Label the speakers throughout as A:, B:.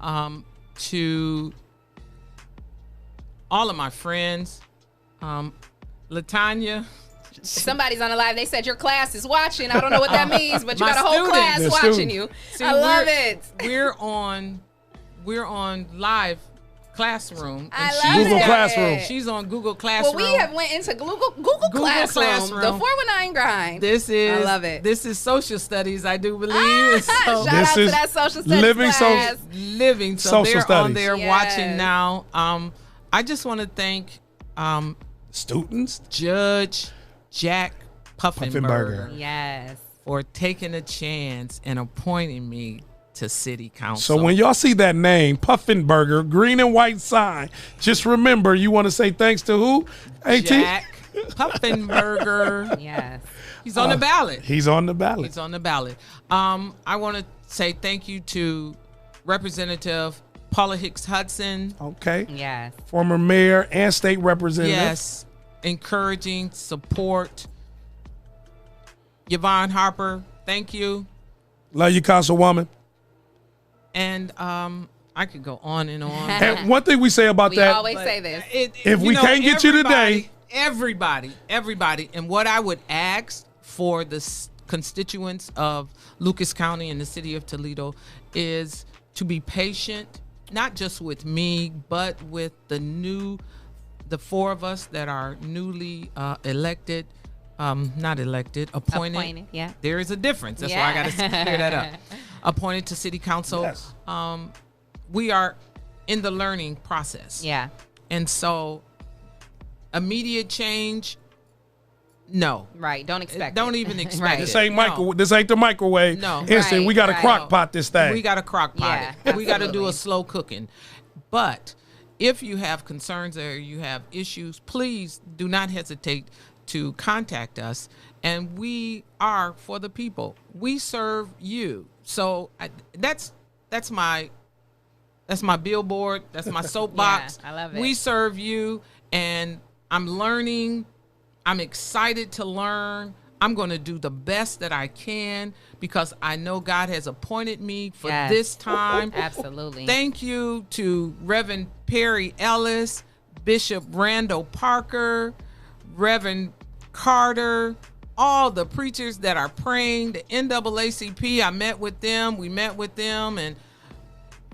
A: um, to all of my friends, um, Latanya.
B: Somebody's on the live. They said your class is watching. I don't know what that means, but you
A: My
B: got a whole
A: students.
B: class
C: They're
B: watching
C: students.
B: you.
A: See,
B: I love
A: we're-
B: it.
A: We're on, we're on live classroom. and
B: I
A: she's
B: love
C: Google
B: it.
A: got-
C: Classroom.
A: She's on Google
B: Well,
A: Classroom.
B: we have went into Google Google, Classroom,
A: Classroom.
B: the 419 grind.
A: This is
B: I love it.
A: This is social studies, I do believe.
B: Ah,
A: so
B: shout
C: This
B: out to
C: is
B: that social studies
C: living
B: class.
C: social-
A: living, so
C: Social
A: they're on
C: studies.
A: there
B: Yes.
A: watching now. Um, I just want to thank um,
C: Students?
A: Judge Jack Puffenberger,
C: Puffenberger.
B: Yes.
A: for taking a chance and appointing me to city council.
C: So when y'all see that name, Puffinburger, green and white sign, just remember you want to say thanks to who? AT?
A: Jack Puffenberger,
B: Yes.
A: he's
C: Oh.
A: on the ballot.
C: He's on the ballot.
A: It's on the ballot. Um, I want to say thank you to Representative Paula Hicks Hudson.
C: Okay.
B: Yes.
C: Former mayor and state representative.
A: Yes, encouraging support. Yvonne Harper, thank you.
C: Love you, Councilwoman.
A: And um, I could go on and on.
C: And one thing we say about
B: We
C: that,
B: always say this.
A: It-
C: If we can't get you
A: everybody-
C: today-
A: everybody, everybody, and what I would ask for the s- constituents of Lucas County and the city of Toledo is to be patient, not just with me, but with the new, the four of us that are newly uh, elected, um, not elected, appointed.
B: Appointed, yeah.
A: There is a difference. That's why I got to
B: Yeah.
A: clear that up. Appointed to city council.
C: Yes.
A: Um, we are in the learning process.
B: Yeah.
A: And so immediate change, no.
B: Right. Don't expect.
A: Don't
B: it.
A: even expect
B: Right.
A: it.
C: this ain't
A: No.
C: micro, this ain't the microwave.
A: No.
C: Instant, we
B: Right,
C: got to
B: right.
C: crock pot this thing.
A: We got to crock pot
B: Yeah,
A: it. We got to do
B: absolutely.
A: a slow cooking. But if you have concerns or you have issues, please do not hesitate to contact us. And we are for the people. We serve you. So I, that's that's my that's my billboard. That's my soapbox.
B: I love it.
A: We serve you, and I'm learning. I'm excited to learn. I'm going to do the best that I can because I know God has appointed me for
B: Yes.
A: this time.
B: Absolutely.
A: Thank you to Reverend Perry Ellis, Bishop Randall Parker, Reverend Carter, all the preachers that are praying, the NAACP. I met with them. We met with them and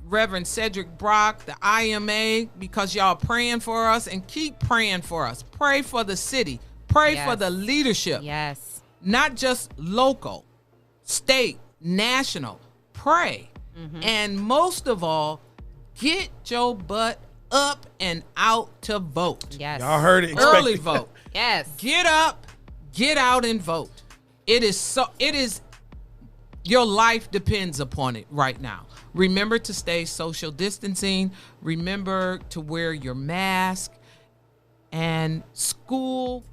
A: Reverend Cedric Brock, the IMA, because y'all praying for us and keep praying for us. Pray for the city. Pray for
B: Yes.
A: the leadership
B: yes.
A: not just local, state, national. Pray. And most of all, get your butt up and out to vote.
B: Yes.
C: y'all heard it. Expect
A: Early
C: it.
A: vote.
B: Yes.
A: Get up, get out and vote. It is so it is your life depends upon it right now. Remember to stay social distancing, remember to wear your mask and school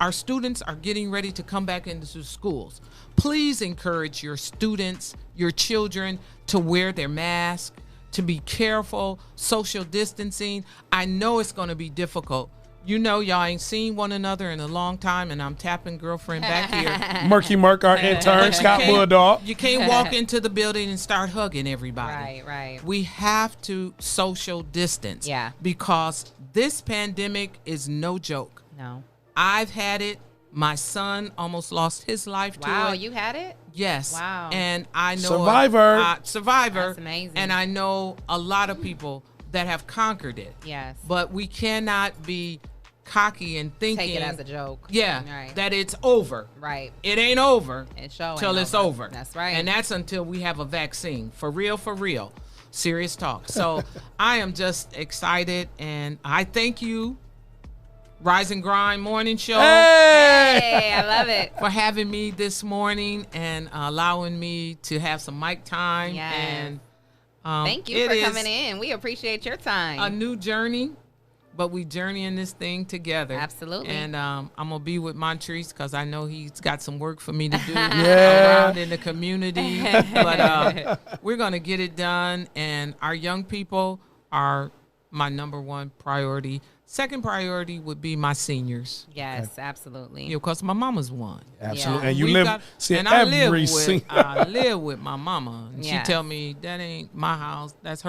A: our students are getting ready to come back into schools. Please encourage your students, your children to wear their mask, to be careful, social distancing. I know it's going to be difficult. You know, y'all ain't seen one another in a long time, and I'm tapping girlfriend back here.
C: Murky Murk, our intern, Scott
A: can't-
C: Bulldog.
A: You can't walk into the building and start hugging everybody.
B: Right. Right.
A: We have to social distance.
B: Yeah.
A: Because this pandemic is no joke.
B: no.
A: I've had it. My son almost lost his life
B: Wow.
A: to it.
B: You had it.
A: yes.
B: Wow.
A: And I know
C: Survivor.
A: uh, survivor.
B: That's amazing.
A: And I know a lot of people that have conquered it.
B: Yes.
A: But we cannot be cocky and thinking
B: Take it as a joke.
A: yeah
B: Right.
A: that it's over.
B: right.
A: It ain't over
B: It show
A: till
B: ain't
A: it's over.
B: That's right.
A: And that's until we have a vaccine. For real, for real. Serious talk. So I am just excited and I thank you, Rise and Grind Morning Show,
C: Hey!
B: Hey, I love it.
A: for having me this morning and allowing me to have some mic time.
B: Yes.
A: And um,
B: Thank you
A: it
B: for
A: is
B: coming in. We appreciate your time.
A: A new journey, but we journeying this thing together.
B: Absolutely.
A: And um, I'm gonna be with Montrese because I know he's got some work for me to do
C: Yeah.
A: around in the community. but uh, we're gonna get it done, and our young people are my number one priority. Second priority would be my seniors,
B: yes, absolutely.
A: you know, cause my mama's one.
C: Absolutely.
B: Yeah.
C: And you
A: We
C: live,
A: got-
C: see,
A: and I live
C: every
A: with,
C: single.
A: I live with my mama, and
B: Yes.
A: she tell me that ain't my house, that's her.